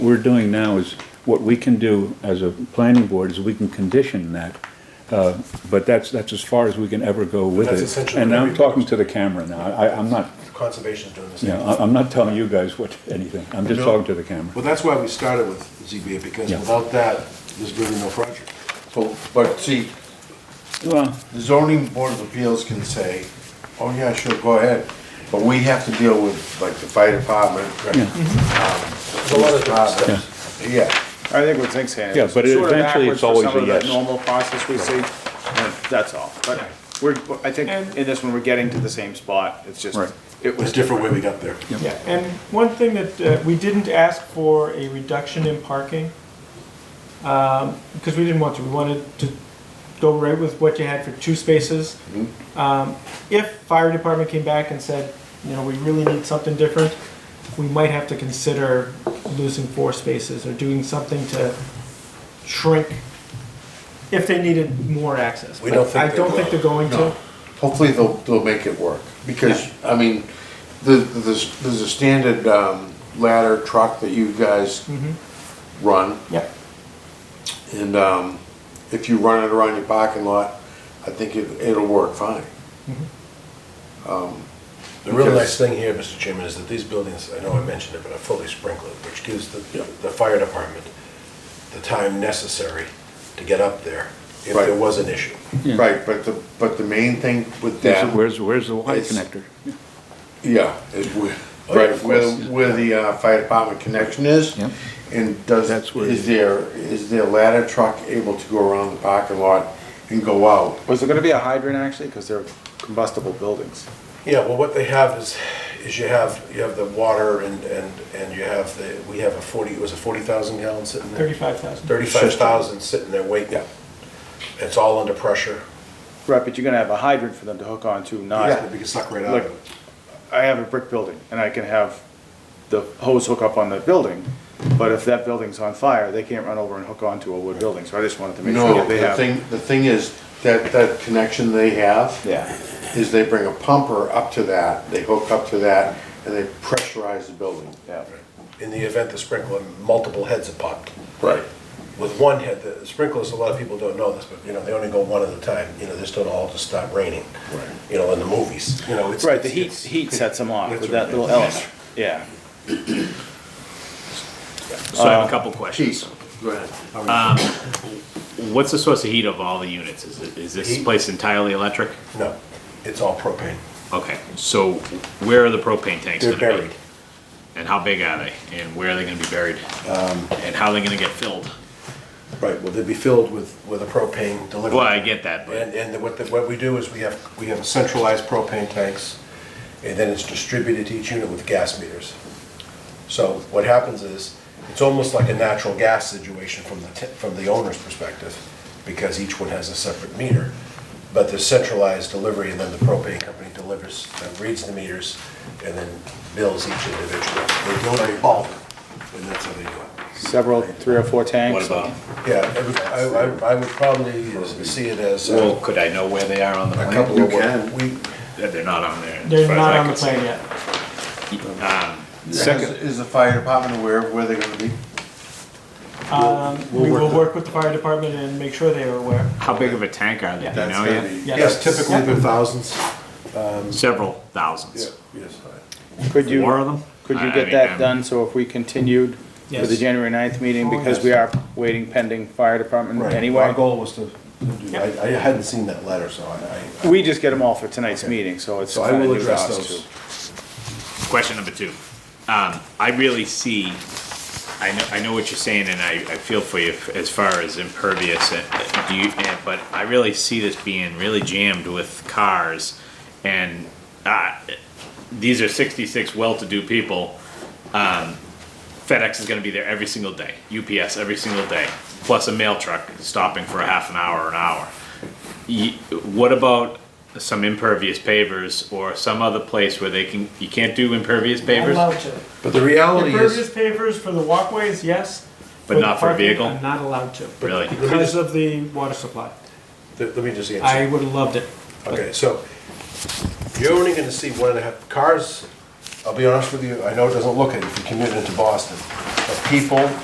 we're doing now is, what we can do as a planning board is we can condition that. uh, But that's, that's as far as we can ever go with it. That's essentially And what I'm we- talking to the camera now. I, I'm not, Conservation's doing the you same. know, I- I'm not telling you guys what, anything. I'm just No. talking to the camera. Well, that's why we started with ZBA, because Yeah. without that, there's really no project. So, but see, Well, the zoning board of appeals can say, oh yeah, sure, go ahead, but we have to deal with like the fire department. um, Yeah. There's a lot of different Uh, steps. Yeah, I think what Zink's saying. Yeah, is but it- sort of eventually it's backwards for always some a of that yes. Normal process we see, and that's all. But we're, I think in this one, we're getting to the same spot. It's just, Right. it There's was a different way we got there. Yeah, and one thing that, uh, we didn't ask for a reduction in parking, um, because we didn't want to, we wanted to go right with what you had for two spaces. Mm-hmm. Um, If fire department came back and said, you know, we really need something different, we might have to consider losing four spaces or doing something to shrink if they needed more access. We don't But think I they don't think will. they're going to. no, hopefully they'll, they'll make it work, because, I mean, the, there's, there's a standard, um, ladder truck that you guys Mm-hmm. run, Yeah, and, um, if you run it around your parking lot, I think it, it'll work fine. The real Because- nice thing here, Mr. Chairman, is that these buildings, I know I mentioned it, but are fully sprinkled, which gives the, the fire department the time necessary to get up there if there Right. was an issue. Right, but the, but the main thing with that. where's, where's the Y It's- connector? Yeah, is where, Oh, yeah, right, of where, course. where the uh, fire department connection is. Yep. And does, That's where- is there, is their ladder truck able to go around the parking lot and go out? Was there gonna be a hydrant actually? Because they're combustible buildings. Yeah, well, what they have is, is you have, you have the water and, and, and you have the, we have a forty, it was a forty thousand gallon sitting there? thirty-five thousand. Thirty-five thousand sitting there waiting. It's all under pressure. Right, but you're gonna have a hydrant for them to hook on to, not. Yeah, we can suck right out Look, of it. I have a brick building and I can have the hose hook up on the building, but if that building's on fire, they can't run over and hook onto a wood building. So I just wanted to make sure No, that they the have. thing, the thing is, that, that connection they have Yeah. is they bring a pumper up to that, they hook up to that, and they pressurize the building. Yeah. In the event the sprinkler, multiple heads have popped. Right. With one head, the sprinklers, a lot of people don't know this, but, you know, they only go one at a time. You know, they just don't all just stop raining. Right. You know, in the movies, you know, it's. Right, the it's- heat, it's- heat sets them off That's with right. that little element. Yeah. So Uh, I have a couple questions. Keith, go ahead. What's the source of heat of all the units? Is, it, is this Heat? place entirely electric? No, it's all propane. Okay, so where are the propane tanks? They're gonna be? buried. And how big are they? And where are they gonna be buried? Um, And how are they gonna get filled? Right, well, they'd be filled with, with a propane delivery. Well, I get that, but And, and what, the- what we do is we have, we have centralized propane tanks, and then it's distributed to each unit with gas meters. So what happens is, it's almost like a natural gas situation from the, t- from the owner's perspective, because each one has a separate meter. But there's centralized delivery, and then the propane company delivers, uh, reads the meters, and then bills each individual. They do it in bulk, and that's how they do it. Several, three or four what tanks. about, Yeah, I would- I, I- I would probably see it as uh, well, could I know where they are on the a plan? couple of, You can. we, That They're not on there. as They're far as not I on the can see. plan yet. Um, Second. Is is the fire department aware of where they're gonna be? Um, We will work with the fire department and make sure they are aware. how big of a tank are they? Do you That's know gonna yet? be- yes, typically Yeah. they're thousands. Several thousands. Yes. Could you? Four of them? Could I- you I get mean, that I'm- done, so if we continued for the Yes. January 9th meeting, Oh, because yes. we are waiting pending fire department Right. Our anyway? goal was to, do- I, I hadn't seen that letter, so I, I- We just get them all for tonight's meeting, so it's so I kind of will new to address us too. those. Question number two. Um, I really see, I know, I know what you're saying and I, I feel for you as far as impervious and, do you, and, but I really see this being really jammed with cars and, uh, these are sixty-six well-to-do people. Um, FedEx is going to be there every single day, UPS every single day, plus a mail truck stopping for a half an hour or an hour. Y- What about some impervious pavers or some other place where they can, you can't do impervious pavers? Allowed to. But the reality Impervious is, pavers for the walkways, yes. But the not for a parking, vehicle? I'm not allowed to. Really? Because of the water supply. let let me just I answer. would have loved it. Okay, so you're only gonna see one and a half, cars, I'll be honest with you, I know it doesn't look it if you commute into Boston, of people